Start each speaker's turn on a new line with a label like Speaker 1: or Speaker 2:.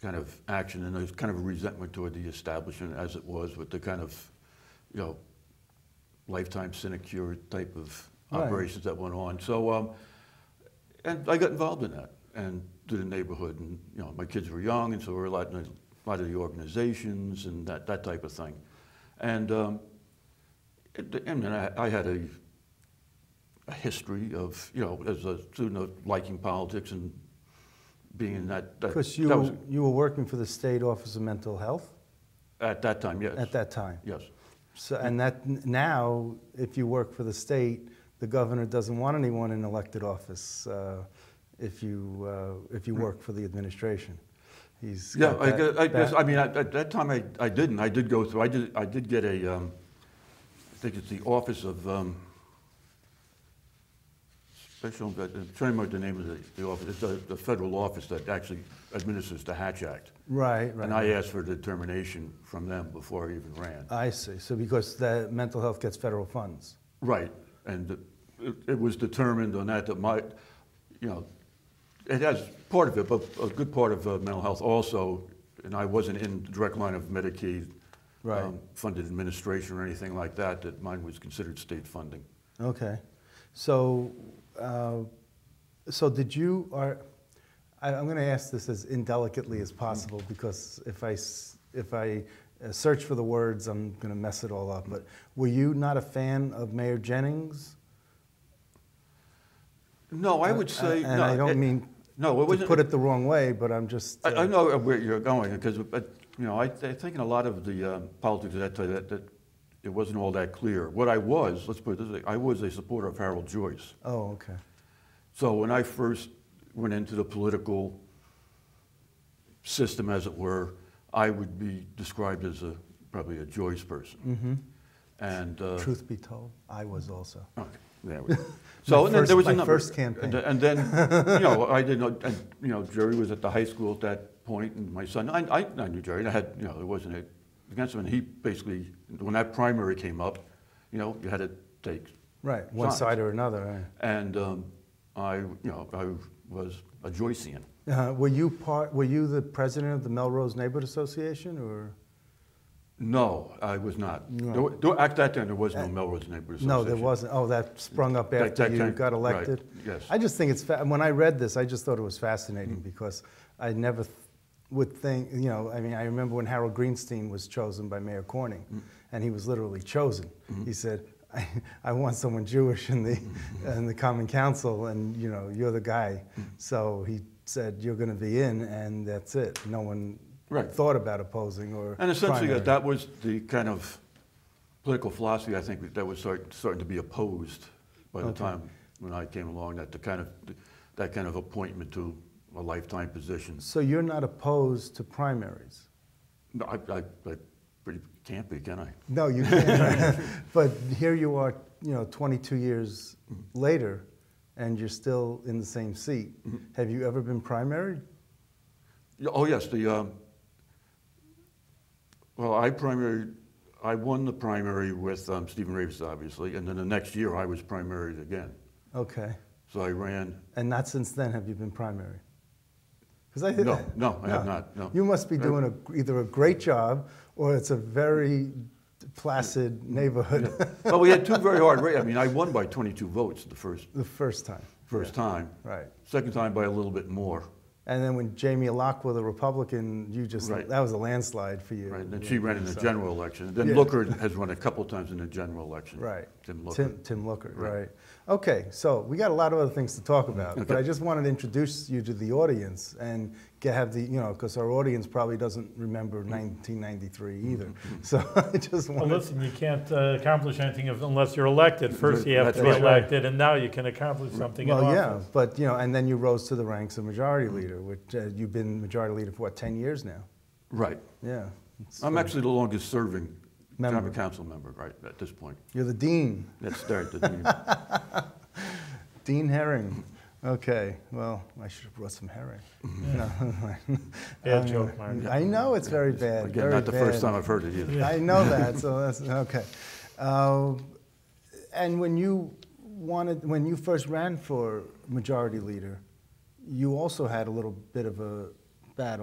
Speaker 1: kind of action, and there's kind of a resentment toward the establishment as it was with the kind of, you know, lifetime sinecure type of
Speaker 2: Right.
Speaker 1: operations that went on. So, um, and I got involved in that and did the neighborhood, and you know, my kids were young, and so we were a lot, in a lot of the organizations and that, that type of thing. And um, it, I mean, I, I had a, a history of, you know, as a student of liking politics and being in that. that-
Speaker 2: Because you,
Speaker 1: that was-
Speaker 2: you were working for the State Office of Mental Health
Speaker 1: at that time, yes.
Speaker 2: at that time.
Speaker 1: Yes.
Speaker 2: So, and that n- now, if you work for the state, the governor doesn't want anyone in elected office uh, if you, uh, if you work for the administration. He's
Speaker 1: Yeah,
Speaker 2: got
Speaker 1: I
Speaker 2: that-
Speaker 1: guess, I, guess,
Speaker 2: that-
Speaker 1: I mean, at, at that time, I, I didn't. I did go through, I did, I did get a, um, I think it's the Office of, um, Special, Inve- I'm trying to remember the name of the, the office, it's the, the federal office that actually administers the Hatch Act.
Speaker 2: Right, right.
Speaker 1: And I asked for determination from them before I even ran.
Speaker 2: I see. So because the mental health gets federal funds.
Speaker 1: Right, and it, it was determined on that that my, you know, it has part of it, but a good part of uh, mental health also, and I wasn't in the direct line of Medicaid um,
Speaker 2: Right.
Speaker 1: funded administration or anything like that, that mine was considered state funding.
Speaker 2: Okay. So, uh, so did you, are, I, I'm going to ask this as indelicately as possible
Speaker 1: Mm-hmm.
Speaker 2: because if I, s- if I uh, search for the words, I'm going to mess it all up. But were you not a fan of Mayor Jennings?
Speaker 1: No, I would
Speaker 2: Uh,
Speaker 1: say.
Speaker 2: and
Speaker 1: no,
Speaker 2: I don't
Speaker 1: it-
Speaker 2: mean
Speaker 1: No, it
Speaker 2: to
Speaker 1: wasn't.
Speaker 2: put it the wrong way, but I'm just.
Speaker 1: I, I
Speaker 2: uh,
Speaker 1: know where you're going because, but you know, I, I think in a lot of the um, politics at that time that, that it wasn't all that clear. What I was, let's put it this way, I was a supporter of Harold Joyce.
Speaker 2: Oh, okay.
Speaker 1: So when I first went into the political system, as it were, I would be described as a probably a Joyce person. And uh,
Speaker 2: Mm-hmm. Truth be told, I was also.
Speaker 1: Okay, there we go. So
Speaker 2: My
Speaker 1: and then
Speaker 2: first-
Speaker 1: there was
Speaker 2: my
Speaker 1: a number.
Speaker 2: first
Speaker 1: And,
Speaker 2: campaign.
Speaker 1: and then you know I didn't. know- And, you know Jerry was at the high school at that point, and my son. I, I, I knew Jerry. And I had you know there wasn't a against him, and he basically when that primary came up, you know you had to take
Speaker 2: Right, one
Speaker 1: Sides.
Speaker 2: side or another.
Speaker 1: and um, I, you know, I was a Joycean.
Speaker 2: right. Uh, were you part? Were you the president of the Melrose Neighborhood Association, or
Speaker 1: No, I was not.
Speaker 2: No. Uh,
Speaker 1: There wa- there- at that time, there was no Melrose Neighborhood Association.
Speaker 2: no? There wasn't. Oh, that sprung up
Speaker 1: That-
Speaker 2: after
Speaker 1: that
Speaker 2: you
Speaker 1: kind-
Speaker 2: got
Speaker 1: right,
Speaker 2: elected.
Speaker 1: yes. Mm-hmm.
Speaker 2: I just think it's fa- when I read this, I just thought it was fascinating because I never th- would think. You know, I mean, I remember when Harold Greenstein was chosen by Mayor Corning,
Speaker 1: Mm.
Speaker 2: and he was literally chosen.
Speaker 1: Mm-hmm.
Speaker 2: He said. I, I want someone Jewish in the
Speaker 1: Mm-hmm.
Speaker 2: in the Common Council, and you know you're the guy.
Speaker 1: Mm.
Speaker 2: So he said you're going to be in, and that's it. No one
Speaker 1: Right.
Speaker 2: thought about opposing or
Speaker 1: And essentially,
Speaker 2: primary.
Speaker 1: that, that was the kind of political philosophy I think that was start, starting to be opposed by the
Speaker 2: Okay.
Speaker 1: time when I came along. That the kind of that kind of appointment to a lifetime position.
Speaker 2: So you're not opposed to primaries?
Speaker 1: No, I, I, I pretty can't be, can I?
Speaker 2: No, you can't. but here you are, you know, 22 years later, and you're still in the same seat. Have you ever been primaried?
Speaker 1: Yeah, Oh, yes, the, um, well, I primary, I won the primary with um, Stephen Ravis, obviously, and then the next year I was primaried again.
Speaker 2: Okay.
Speaker 1: So I ran,
Speaker 2: And not since then have you been primaried? 'Cause I
Speaker 1: No, no, I have not, no.
Speaker 2: You must be
Speaker 1: I-
Speaker 2: doing a, either a great job or it's a very placid neighborhood
Speaker 1: but we had two very hard, ra- I mean, I won by 22 votes the first,
Speaker 2: the first time.
Speaker 1: first time.
Speaker 2: Right.
Speaker 1: Second time by a little bit more,
Speaker 2: And then when Jamie Lockwood, the Republican, you just,
Speaker 1: Right.
Speaker 2: that was a landslide for you.
Speaker 1: right? And then she ran in the
Speaker 2: So-
Speaker 1: general election. And Then
Speaker 2: Yeah.
Speaker 1: Looker has run a couple times in the general election.
Speaker 2: Right.
Speaker 1: Tim Looker.
Speaker 2: Tim, Tim Looker, right.
Speaker 1: Right. Mm-hmm.
Speaker 2: Okay, so we got a lot of other things to talk about, but
Speaker 1: Okay.
Speaker 2: I just wanted to introduce you to the audience and get, have the, you know, because our audience probably doesn't remember
Speaker 1: Mm-hmm.
Speaker 2: 1993 either. So I just
Speaker 3: Well,
Speaker 2: wanted,
Speaker 3: listen, you can't uh, accomplish anything if- unless you're elected. First, you have
Speaker 1: That's
Speaker 3: to be
Speaker 1: right.
Speaker 3: elected, and now you can accomplish something in
Speaker 2: well, yeah,
Speaker 3: office.
Speaker 2: but, you know, and then you rose to the ranks of majority
Speaker 1: Mm-hmm.
Speaker 2: leader, which uh, you've been majority leader for what, 10 years now?
Speaker 1: Right.
Speaker 2: Yeah. It's-
Speaker 1: I'm actually the longest serving
Speaker 2: Member.
Speaker 1: common council member, right, at this point.
Speaker 2: You're the dean,
Speaker 1: That's there at the meeting.
Speaker 2: Dean Herring. Okay, well, I should have brought some herring. No,
Speaker 3: Bad joke, Mark.
Speaker 2: I know it's very bad.
Speaker 1: Mm-hmm. Again,
Speaker 2: very
Speaker 1: not the
Speaker 2: bad.
Speaker 1: first time I've heard it either.
Speaker 2: I know that, so that's okay. Uh, and when you wanted, when you first ran for majority leader, you also had a little bit of a battle.